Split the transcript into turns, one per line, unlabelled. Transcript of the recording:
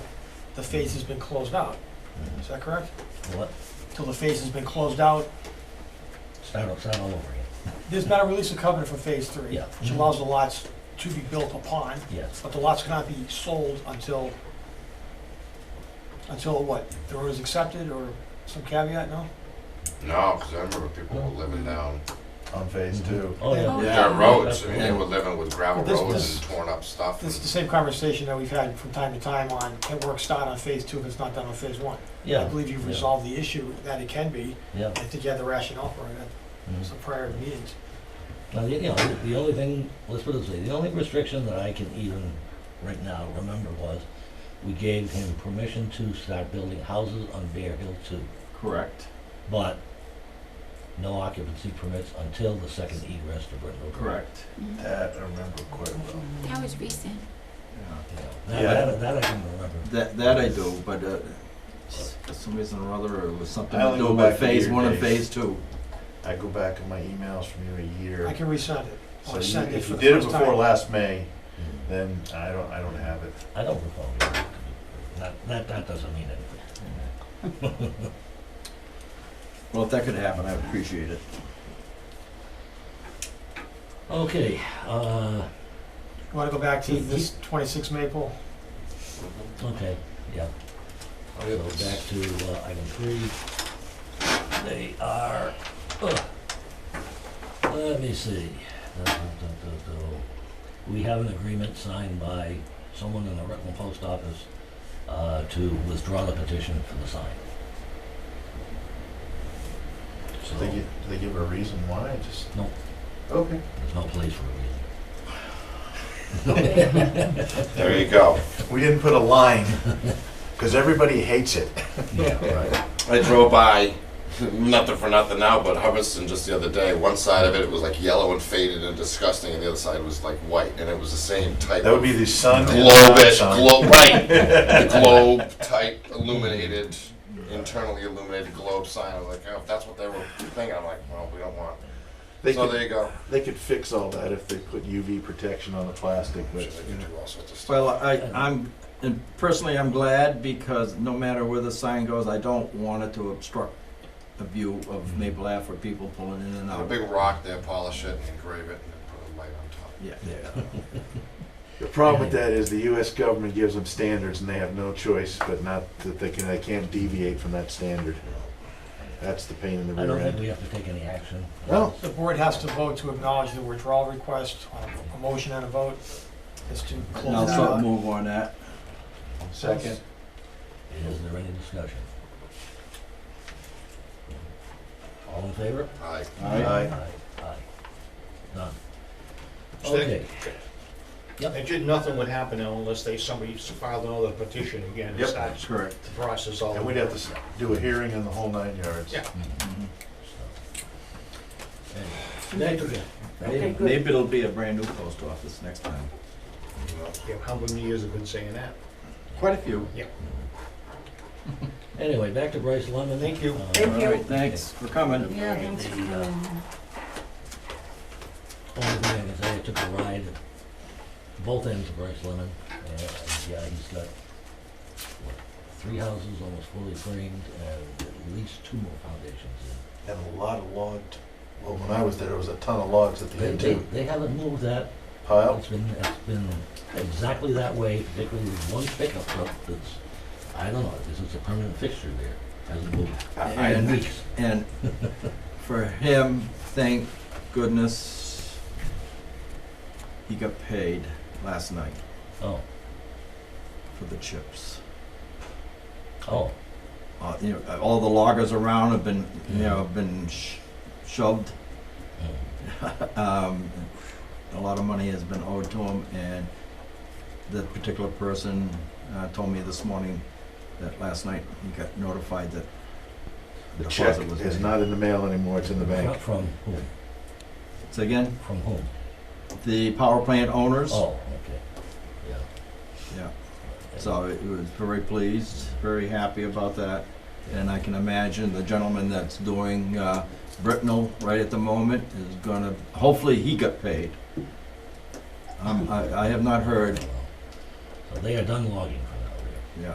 the phase has been closed out. Is that correct?
What?
Till the phase has been closed out,
Start, o- start all over again.
there's been a release of covenant for phase three,
Yeah. Mm-hmm.
which allows the lots to be built upon,
Yes.
but the lots cannot be sold until, until what? The road is accepted or some caveat, no?
No, because I remember people were living down
on phase
Mm-hmm.
two.
Oh, yeah.
Yeah.
dirt roads. I mean, they
Yeah.
were living with gravel
This-
roads
this-
and torn up stuff.
This is the
and-
same conversation that we've had from time to time on, can work start on phase two if it's not done on phase one? I
Yeah.
believe you've resolved the issue that it can be.
Yeah.
I think you had the rationale for it at
Mhm.
some prior meetings.
Now, the, you know, the- the only thing, let's put it this way, the only restriction that I can even right now remember was we gave him permission to start building houses on Bear Hill too,
Correct.
but no occupancy permits until the second egress to Brittenell. Road.
Correct.
That I remember quite well.
That was recent.
Yeah.
You know,
Yeah.
That, that, that I can remember.
That that I do, but uh, for some reason or other, it was something
I
to
only
do
go
with
back to
phase
your
one and
days.
phase two.
I go back in my emails from you a
I
year.
can resend it.
So
I'll
you-
send it
if
for
you
the
did it
first
before
time.
last May, then I don't, I don't have it.
Mm-hmm. I don't recall. That, that, that doesn't mean anything.
Well, if that could happen, I'd appreciate it.
Okay, uh,
You wanna go back to this twenty-six Maple?
okay, yeah.
Oh,
So
yeah.
back to uh, item three. They are, ugh. Let me see. Dun, dun, dun, dun, dun. We have an agreement signed by someone in the Rutland Post Office uh, to withdraw the petition for the sign. So,
Do they give, do they give a reason why? Just?
No.
Okay.
there's no place for it.
There you go.
We didn't put a line, because everybody hates it.
Yeah, right.
I drove by, nothing for nothing now, but Hubbardston just the other day. One side of it, was like yellow and faded and disgusting, and the other side was like white, and it was the same type.
That would
of
be the sun. and
globish,
sun.
globe, right? the globe type illuminated, internally illuminated globe sign. I was like, oh, if that's what they were thinking, I'm like, well, we don't want.
They
so
could,
there you go.
they could fix all that if they put UV protection on the plastic,
They
but
could do all sorts of stuff.
Well, I, I'm, and personally, I'm glad because no matter where the sign goes, I don't want it to obstruct the view of Maple Ave for people pulling in and
Put a
out.
big rock there, polish it, and engrave it, and then put a light on top.
Yeah.
the problem with that is the US government gives them standards and they have no choice, but not that they can, they can't deviate from that standard. That's the pain in the
I
rear
don't think
end.
we have to take any action.
No.
The board has to vote to acknowledge the withdrawal request, on a motion and a vote, is to
And I'll
close that
sort of
out.
move on that.
Second.
Is there any discussion? All in favor?
I
Aye.
Aye, aye. None.
Stick.
Okay,
And ju- nothing would happen unless they, somebody filed another petition again and
Yep.
starts
Correct.
the process all
And
over.
we'd have to s- do a hearing on the whole nine yards.
Yeah.
Mhm.
so, anyway.
Maybe maybe it'll be a brand new post office next time.
you know,
Yeah, How many years have been saying that?
Quite a few.
Anyway, back to Bryce Lemon.
Thank you.
Uh,
All right, thanks for coming.
Yeah, thanks for
The, uh,
coming.
Only thing I can say, I took a ride at both ends of Bryce Lemon, and uh, yeah, he's got, what, three houses almost fully framed and at least two more foundations in.
And a lot of logged, well, when I was there, there was a ton of logs at the
They,
end
they,
too.
they haven't moved that
Pile,
It's been, it's been exactly that way, particularly with one pickup truck that's, I don't know, this is a permanent fixture there, hasn't moved
I-
in
I-
weeks.
And for him, thank goodness, he got paid last night
Oh,
for the chips.
oh,
Uh, you know, all the loggers around have been, you know, have been sh- shoved.
mm,
Um, a lot of money has been owed to him, and that particular person uh, told me this morning that last night he got notified that
the check
deposit was
is
made.
not in the mail anymore, it's in the bank.
Fro- from whom,
So again,
from whom?
the power plant owners.
Oh, okay, yeah.
Yeah. So it was very pleased, very happy about that. And I can imagine the gentleman that's doing uh, Britnell right at the moment is gonna, hopefully he got paid. Um, I I have not heard,
So they are done logging